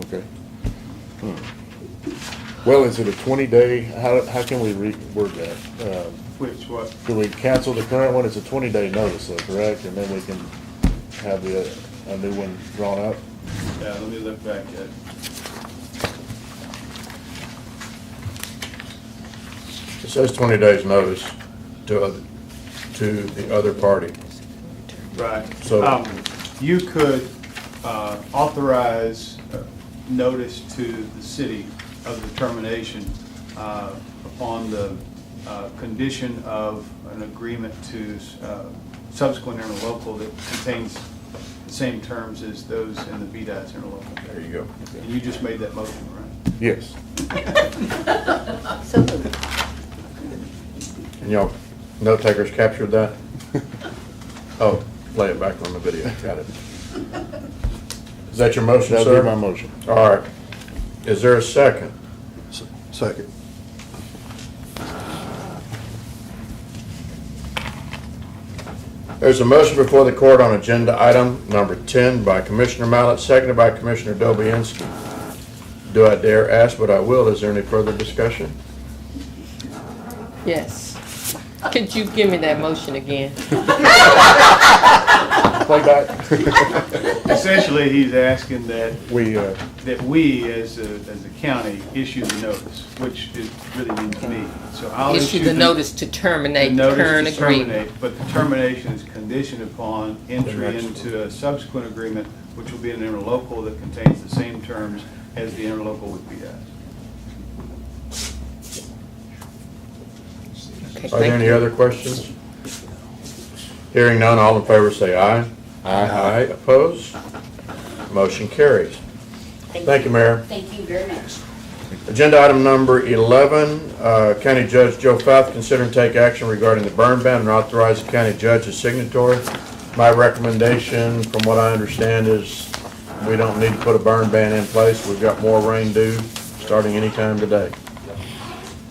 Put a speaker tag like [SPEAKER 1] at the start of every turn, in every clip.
[SPEAKER 1] Okay. Hmm. Well, is it a twenty day, how, how can we reword that? Um,
[SPEAKER 2] Which what?
[SPEAKER 1] Do we cancel the current one? It's a twenty day notice though, correct? And then we can have the, a new one drawn up?
[SPEAKER 2] Yeah, uh, let me look back at.
[SPEAKER 3] It says 20 days notice to, oth- to the other party.
[SPEAKER 2] Right.
[SPEAKER 3] So-
[SPEAKER 2] Um, You could uh, authorize uh, notice to the city of the termination uh, upon the uh, condition of an agreement to uh, subsequent interlocal that contains the same terms as those in the VDOT's interlocal.
[SPEAKER 3] There you go.
[SPEAKER 2] And you just made that motion, right?
[SPEAKER 1] Yes.
[SPEAKER 4] So moved.
[SPEAKER 3] And y'all, note takers captured that? Oh, play it back on the video, got it. Is that your motion,
[SPEAKER 1] That'll
[SPEAKER 3] sir?
[SPEAKER 1] be my motion.
[SPEAKER 3] All right. Is there a second?
[SPEAKER 5] Second.
[SPEAKER 3] There's a motion before the court on agenda item number 10 by Commissioner Mallett, seconded by Commissioner Dobianski. Do I dare ask, but I will, is there any further discussion?
[SPEAKER 6] Yes. Could you give me that motion again?
[SPEAKER 1] Playback.
[SPEAKER 2] Essentially, he's asking that
[SPEAKER 1] We, uh,
[SPEAKER 2] that we, as a, as a county, issue the notice, which is really means me. So I'll issue.
[SPEAKER 6] Issue the notice to terminate
[SPEAKER 2] the
[SPEAKER 6] the
[SPEAKER 2] notice to
[SPEAKER 6] current agreement.
[SPEAKER 2] terminate, But the termination is conditioned upon entry
[SPEAKER 3] next one.
[SPEAKER 2] into a subsequent agreement, which will be an interlocal that contains the same terms as the interlocal would be at.
[SPEAKER 6] Okay,
[SPEAKER 3] Are there
[SPEAKER 6] thank
[SPEAKER 3] any
[SPEAKER 6] you.
[SPEAKER 3] other questions? Hearing none, all in favor say aye. Aye. Aye, opposed? Motion carries. Thank you, Mayor.
[SPEAKER 4] Thank you very much.
[SPEAKER 3] Agenda item number 11, uh, County Judge Joe Fath, consider and take action regarding the burn ban and authorize the county judge as signatory. My recommendation, from what I understand, is we don't need to put a burn ban in place. We've got more rain due, starting anytime today.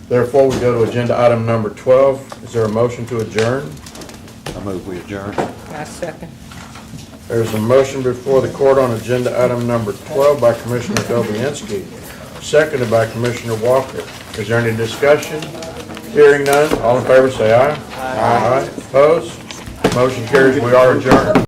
[SPEAKER 3] Therefore, we go to agenda item number 12. Is there a motion to adjourn?
[SPEAKER 5] I move we adjourn.
[SPEAKER 6] My second.
[SPEAKER 3] There's a motion before the court on agenda item number 12 by Commissioner Dobianski, seconded by Commissioner Walker. Is there any discussion? Hearing none, all in favor say aye. Aye. Opposed? Motion carries, we are adjourned.